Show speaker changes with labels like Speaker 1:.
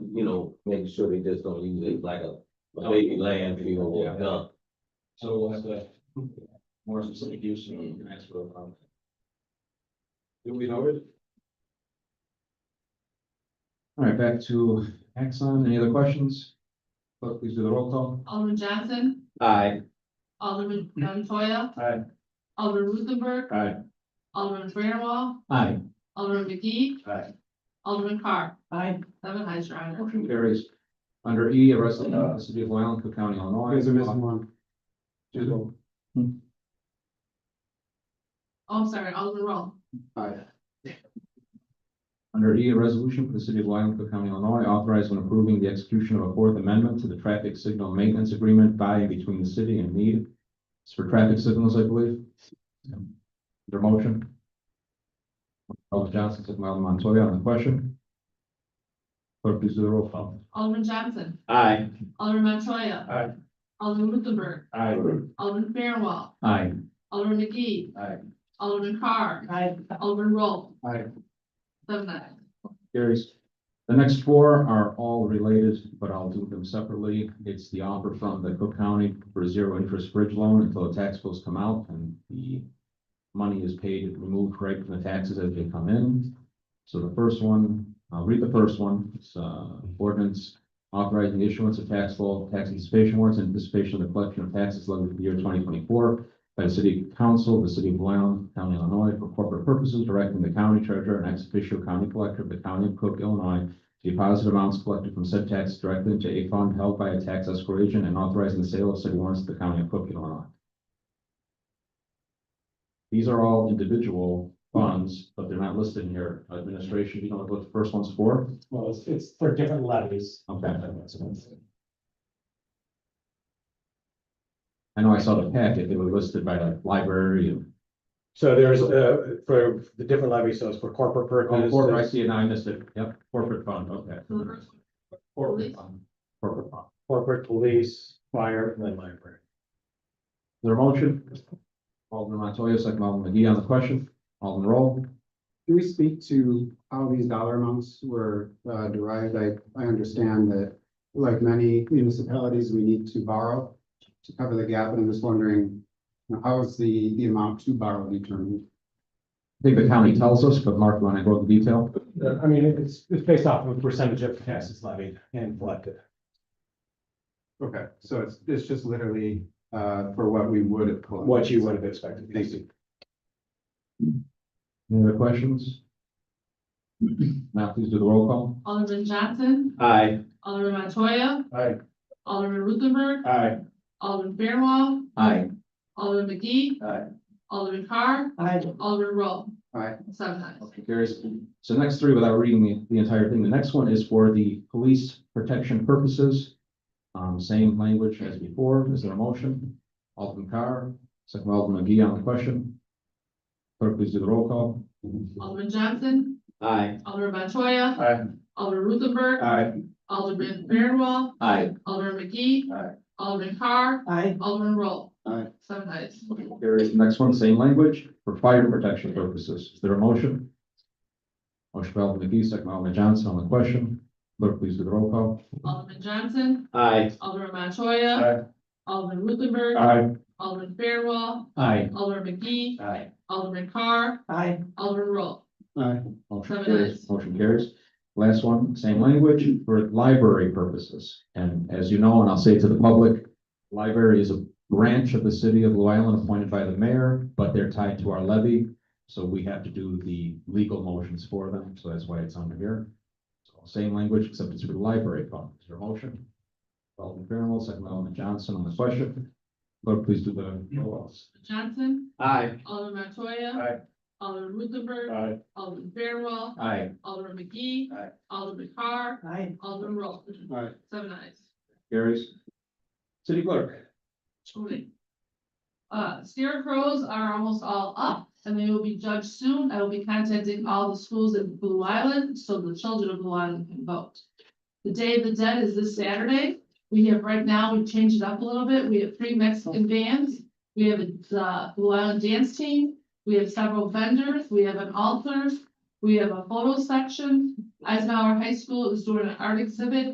Speaker 1: you know, making sure they just don't use it like a, a baby landfill or a dump.
Speaker 2: So we'll have to more specific use and ask for a permit. Do we know it? All right, back to Exxon. Any other questions? Clerk, please do the roll call.
Speaker 3: Alderman Johnson,
Speaker 1: Aye.
Speaker 3: Alderman
Speaker 4: Mm-hmm.
Speaker 3: Montoya.
Speaker 2: Aye.
Speaker 3: Alderman Ruthenberg,
Speaker 2: Aye.
Speaker 3: Alderman Fairwell,
Speaker 2: Aye.
Speaker 3: Alderman McGee.
Speaker 2: Aye.
Speaker 3: Alderman Carr,
Speaker 4: Aye.
Speaker 3: seven eyes, your honor.
Speaker 2: Motion carries. Under E, a resolution of the city of Blue Island, Cook County, Illinois.
Speaker 5: Guys are missing one.
Speaker 2: Two.
Speaker 3: Oh, I'm sorry, Alderman Roll,
Speaker 2: Under E, a resolution for the city of Blue Island, Cook County, Illinois, authorizing and approving the execution of a fourth amendment to the traffic signal maintenance agreement by and between the city and Mead. It's for traffic signals, I believe. Their motion. Alderman Johnson, second by Alderman Montoya on the question. Clerk, please do the roll call.
Speaker 3: Alderman Johnson,
Speaker 1: Aye.
Speaker 3: Alderman Montoya.
Speaker 2: Aye.
Speaker 3: Alderman Ruthenberg,
Speaker 2: Aye.
Speaker 3: Alderman Fairwell,
Speaker 2: Aye.
Speaker 3: Alderman McGee.
Speaker 2: Aye.
Speaker 3: Alderman Carr,
Speaker 4: Aye.
Speaker 3: Alderman Roll.
Speaker 2: Aye.
Speaker 3: Seven ayes.
Speaker 2: Carries. The next four are all related, but I'll do them separately. It's the offer from the Cook County for zero interest bridge loan until the tax bills come out and the money is paid, removed right from the taxes as they come in. So the first one, I'll read the first one. It's uh ordinance authorizing the issuance of taxable tax anticipation warrants in anticipation of the collection of taxes levied for the year twenty twenty-four by the city council, of the city of Blue Island, county of Illinois, for corporate purposes, directing the county treasurer and ex officio county collector of the county of Cook, Illinois, to deposit amounts collected from said tax directly into a fund held by a tax escrow agent and authorizing the sale of said warrants to the county of Cook, Illinois. These are all individual funds, but they're not listed in here. Administration, you know what the first one's for?
Speaker 5: Well, it's, it's for different levies.
Speaker 2: Okay. I know I saw the packet, they were listed by like library and,
Speaker 5: So there's, uh, for the different levies, so it's for corporate
Speaker 2: oh, corporate, I
Speaker 5: purposes,
Speaker 2: see it, now I missed it, yep, corporate fund, okay.
Speaker 3: So the
Speaker 4: Mm-hmm.
Speaker 3: first one,
Speaker 2: Corporate fund. Corporate fund.
Speaker 5: corporate police, fire, and then library.
Speaker 2: Is There a motion? Alderman Montoya, second Alderman McGee on the question, Alderman Roll.
Speaker 6: Can we speak to how these dollar amounts were uh, derived? I, I understand that, like many municipalities, we need to borrow to cover the gap, and I'm just wondering, you know, how is the, the amount to borrow determined?
Speaker 2: I think the county tells us, but Mark, when I go into detail,
Speaker 5: Uh, I mean, it's, it's based off of a percentage of taxes levied and collected.
Speaker 6: Okay, so it's, it's just literally uh, for what we would have collected.
Speaker 5: What you would have expected.
Speaker 6: Thank you.
Speaker 2: any other questions? Now please do the roll call.
Speaker 3: Alderman Johnson,
Speaker 1: Aye.
Speaker 3: Alderman Montoya,
Speaker 5: Aye.
Speaker 3: Alderman Ruthenberg,
Speaker 5: Aye.
Speaker 3: Alderman Fairwell,
Speaker 2: Aye.
Speaker 3: Alderman McGee.
Speaker 5: Aye.
Speaker 3: Alderman Carr,
Speaker 4: Aye.
Speaker 3: Alderman Roll.
Speaker 6: Aye.
Speaker 3: Seven ayes.
Speaker 2: Motion carries. So next three, without reading the, the entire thing, the next one is for the police protection purposes. Um, same language as before. Is there a motion? Alderman Carr, second by Alderman McGee on the question. Clerk, please do the roll call.
Speaker 3: Alderman Johnson,
Speaker 1: Aye.
Speaker 3: Alderman Montoya.
Speaker 5: Aye.
Speaker 3: Alderman Ruthenberg,
Speaker 5: Aye.
Speaker 3: Alderman Fairwell,
Speaker 2: Aye.
Speaker 3: Alderman McGee.
Speaker 5: Aye.
Speaker 3: Alderman Carr,
Speaker 4: Aye.
Speaker 3: Alderman Roll.
Speaker 6: Aye.
Speaker 3: Seven ayes.
Speaker 2: Carries. Next one, same language for fire protection purposes. Is there a motion? Motion by Alderman McGee, second by Alderman Johnson on the question. Clerk, please do the roll call.
Speaker 3: Alderman Johnson,
Speaker 1: Aye.
Speaker 3: Alderman Montoya.
Speaker 5: Aye.
Speaker 3: Alderman Ruthenberg.
Speaker 2: Aye.
Speaker 3: Alderman Fairwell,
Speaker 2: Aye.
Speaker 3: Alderman McGee,
Speaker 5: Aye.
Speaker 3: Alderman Carr,
Speaker 4: Aye.
Speaker 3: Alderman Roll.
Speaker 2: Motion
Speaker 3: Seven
Speaker 2: carries,
Speaker 3: ayes.
Speaker 2: motion carries. Last one, same language for library purposes. And as you know, and I'll say to the public, library is a branch of the city of Blue Island appointed by the mayor, but they're tied to our levy. So we have to do the legal motions for them, so that's why it's under here. So Same language, except it's for the library fund. Is there a motion? Alderman Fairwell, second by Alderman Johnson on the question. Clerk, please do the roll calls.
Speaker 3: Johnson,
Speaker 1: Aye.
Speaker 3: Alderman Montoya.
Speaker 5: Aye.
Speaker 3: Alderman Ruthenberg,
Speaker 5: Aye.
Speaker 3: Alderman Fairwell,
Speaker 2: Aye.
Speaker 3: Alderman McGee.
Speaker 5: Aye.
Speaker 3: Alderman Carr,
Speaker 4: Aye.
Speaker 3: Alderman Roll.
Speaker 6: All right,
Speaker 3: Seven ayes.
Speaker 2: Carries. City clerk.
Speaker 3: Okay. Uh, scarecrows are almost all up and they will be judged soon. I will be contacting all the schools in Blue Island so the children of Blue Island can vote. The Day of the Dead is this Saturday. We have right now, we've changed it up a little bit. We have three Mexican bands. We have a uh, Blue Island dance team. We have several vendors. We have an altar. We have a photo section. Eisenhower High School is doing an art exhibit